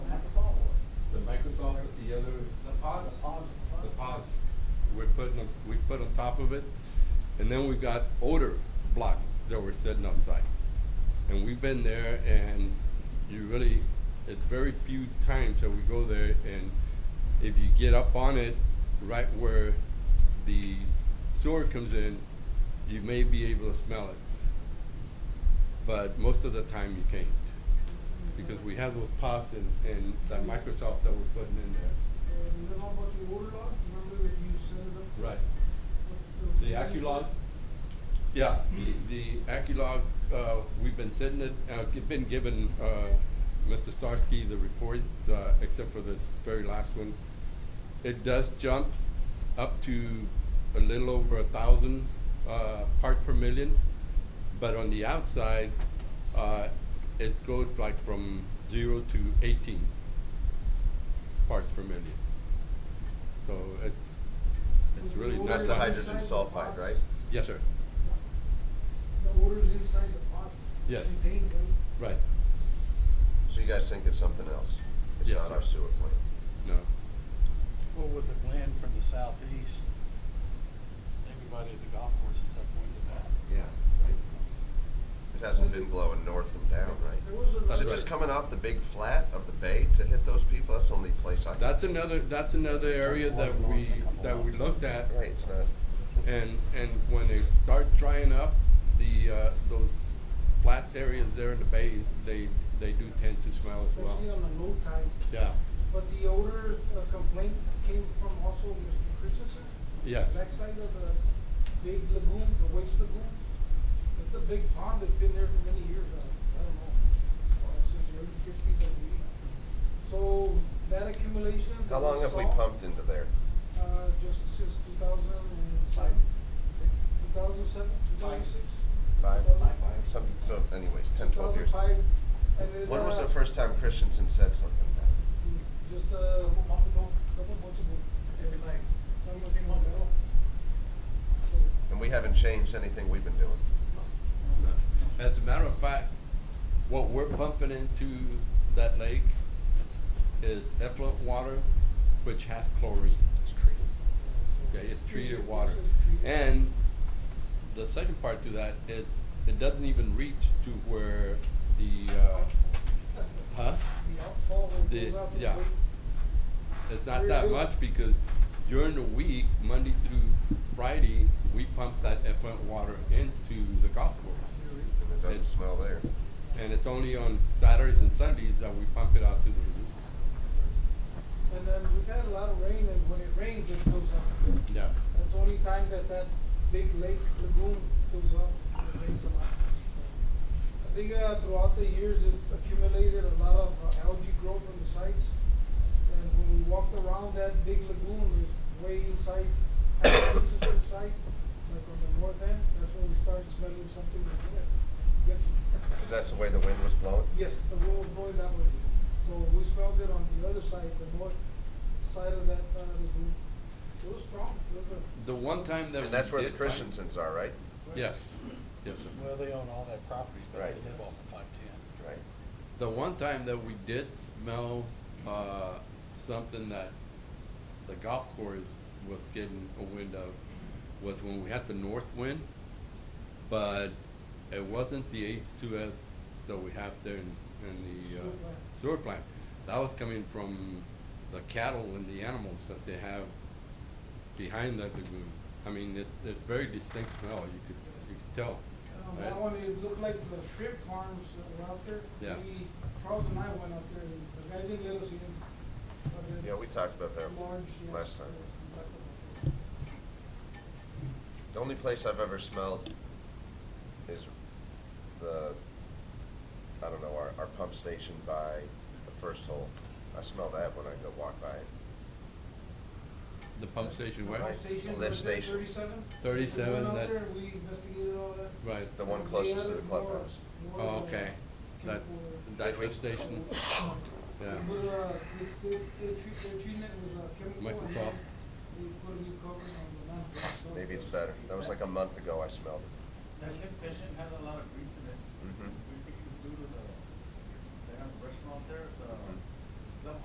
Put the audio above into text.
put on top of it. And then we've got older blocks that were sitting on site. And we've been there and you really, it's very few times that we go there and if you get up on it, right where the sewer comes in, you may be able to smell it. But most of the time you can't. Because we have those pots and, and that Microsoft that we're putting in there. And what about the old lots, remember that you set it up? Right. with The Aculog, yeah, the, the Aculog, uh, we've been sitting it, uh, gi- been given, uh, Mr. Sarsky the reports, uh, except for this very last one. It does jump up to a little over a thousand, uh, parts per million, but on the outside, uh, it goes like from zero to eighteen parts per million. So it's, it's really not. That's the much. hydrogen sulfide, right? Yes, sir. The odors inside the pot. Yes. Contained, right? Right. So you guys think it's something else? It's Yes, not sir. our sewer plant? No. Well, with the wind from the southeast, everybody at the golf course is upwind of that. Yeah, right? It hasn't been blowing north and down, There right? was another. Is That's it just right. coming off the big flat of the bay to hit those people? That's the only place I can. That's another, that's another area that we, that we looked at. Right, it's not, And, and when they start drying up, the, uh, those flat areas there in the bay, they, they do tend to smell as well. Especially on the low tide, Yeah, but the odor uh, complaint came from also Mr. Christensen. Yes. Backside of the big lagoon, the waste lagoon, it's a big pond that's been there for many years, uh, I don't know, uh, since the early fifties, I believe. So that accumulation that how long have we saw- pumped into there? Uh, just since two thousand and five, two thousand seven, two thousand six. Five? Some, so anyways, ten, twelve years. Two thousand five, and then. When was uh, the first time Christensen said something about Just a month ago, couple months ago. Every night. months ago. it? And we haven't changed anything we've been doing. As a matter of fact, what we're pumping into that lake is effluent water, which has chlorine. It's treated. Yeah, it's treated water. It's treated. And the second part to that, it, it doesn't even reach to where the, uh, huh? The outfall that The- goes out to the yeah. lake. It's not that much because during the week, Monday through Friday, we pump that effluent water into the golf course. And it doesn't It's- smell there. And it's only on Saturdays and Sundays that we pump it out to the lagoon. And then we've had a lot of rain, and when it rains, it fills up. Yeah. That's the only time that that big lake lagoon fills up, it rains a lot. I think uh, throughout the years, it accumulated a lot of uh, algae growth on the sites. And when we walked around that big lagoon, it's way inside, Christensen's site, like on the north end, that's when we started smelling something like that. Yes. Cause that's the way the wind was blowing? Yes, the wind was blowing that way. So we smelled it on the other side, the north side of that uh, lagoon. It was strong, it was a The one time that we And that's where the did find- Christensens are, right? Yes, yes, sir. Well, they own all that property, but Right. they live off of five-ten. Right. The one time that we did smell, uh, something that the golf course was getting a wind of was when we had the north wind, but it wasn't the H two S that we have there in, in the, uh, Sewer plant. sewer plant. That was coming from the cattle and the animals that they have behind that lagoon. I mean, it's, it's very distinct smell, you could, you could tell. Um, right? That one, it looked like the shrimp farms that were out there. Yeah. We- Charles and I went out there, and the guy didn't let us in. but it's Yeah, we talked about that large, yes, last time. yes, we talked about that. The only place I've ever smelled is the, I don't know, our, our pump station by the first hole. I smell that when I go walk by it. The pump station where? Lift station, Lift was it station. thirty-seven? 37, We went that- out there, we investigated all that. Right. The one They closest to the added more- clubhouse. Oh, more than okay. That, chemical- that lift station, yeah. We put, uh, we- they- they treat- they're treating it with, uh, chemical. and Microsoft. then We put a new cover on the lamp. so- Maybe it's better. That was like a month ago I smelled it. That lift station has a lot of grease in it. Mhm. We think it's due to the, they have a restaurant there, the